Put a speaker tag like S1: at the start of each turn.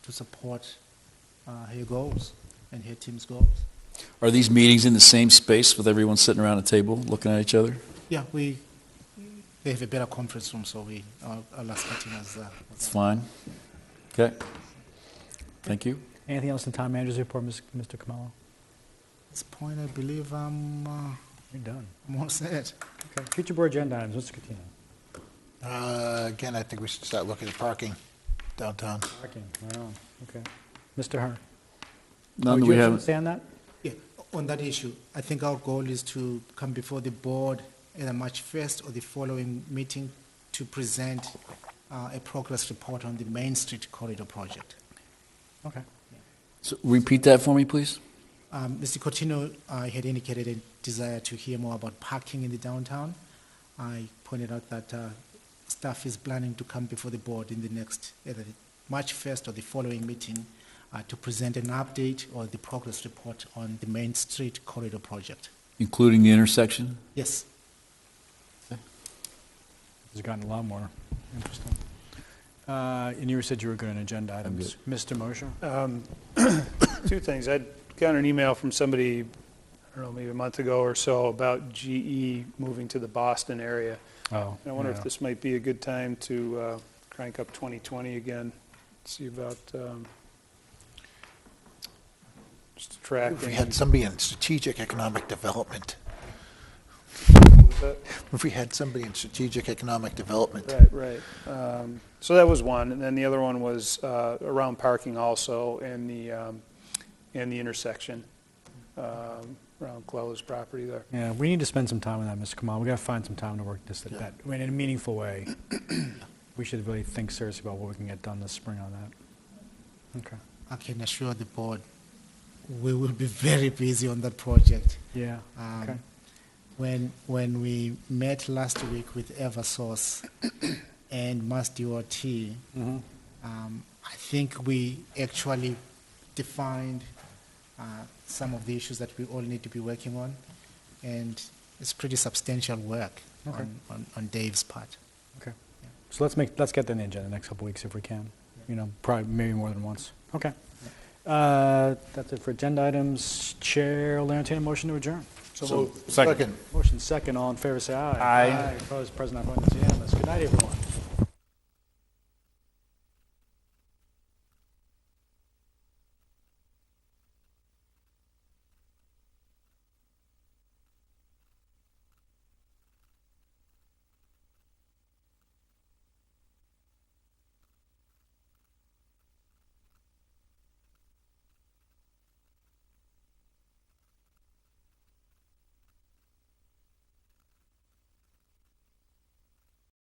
S1: to support uh, her goals and her team's goals.
S2: Are these meetings in the same space with everyone sitting around a table looking at each other?
S1: Yeah, we, they have a better conference room, so we are, are last meeting as, uh,
S2: It's fine. Okay. Thank you.
S3: Anything else in town manager's report, Ms. Mr. Camello?
S1: At this point, I believe I'm, uh,
S3: You're done.
S1: I'm all set.
S3: Okay. Future board agenda items, Mr. Catino.
S4: Uh, Again, I think we should start looking at parking downtown.
S3: Parking, right on, okay. Mr. Hart?
S2: None
S3: would
S2: that we
S3: you have
S2: haven't.
S3: something to Say on that?
S1: Yeah, on that issue, I think our goal is to come before the board either March 1st or the following meeting to present uh, a progress report on the Main Street Corridor project.
S3: Okay.
S2: So repeat that for me, please.
S1: Um, Mr. Cotino uh, had indicated a desire to hear more about parking in the downtown. I pointed out that uh, staff is planning to come before the board in the next, either the March 1st or the following meeting, uh, to present an update or the progress report on the Main Street Corridor project.
S2: Including the intersection?
S1: Yes.
S3: It's gotten a lot more interesting. Uh, And you said you were good on agenda items. Mr. Mosher?
S5: Two things. I got an email from somebody, I don't know, maybe a month ago or so, about GE moving to the Boston area.
S3: Oh.
S5: And I wonder
S3: yeah.
S5: if this might be a good time to uh, crank up 2020 again, see about um, just
S4: If we
S5: attracting.
S4: had somebody in strategic economic development, if we had somebody in strategic economic development,
S5: Right, right. Um, So that was one, and then the other one was uh, around parking also and the, um, and the intersection um, around Clella's property there.
S3: Yeah, we need to spend some time on that, Mr. Kamal. we got to find some time to work this, that, I mean, in a meaningful way. We should really think seriously about what we can get done this spring on that. Okay.
S1: I can assure the board, we will be very busy on that project.
S3: Yeah,
S1: Um,
S3: okay.
S1: When, when we met last week with Eversource and Mass DOT,
S3: Mm-hmm.
S1: um, I think we actually defined uh, some of the issues that we all need to be working on, and it's pretty substantial work
S3: Okay.
S1: on, on, on Dave's part.
S3: Okay. So let's make, let's get that on the agenda the next couple weeks if we can. You know, probably, maybe more than once. Okay. Uh, That's it for agenda items. Chair will entertain a motion to adjourn.
S4: so, second.
S3: Motion second, all in favor, say aye. Aye. Opposed, present, not voting, it's unanimous. Good night, everyone.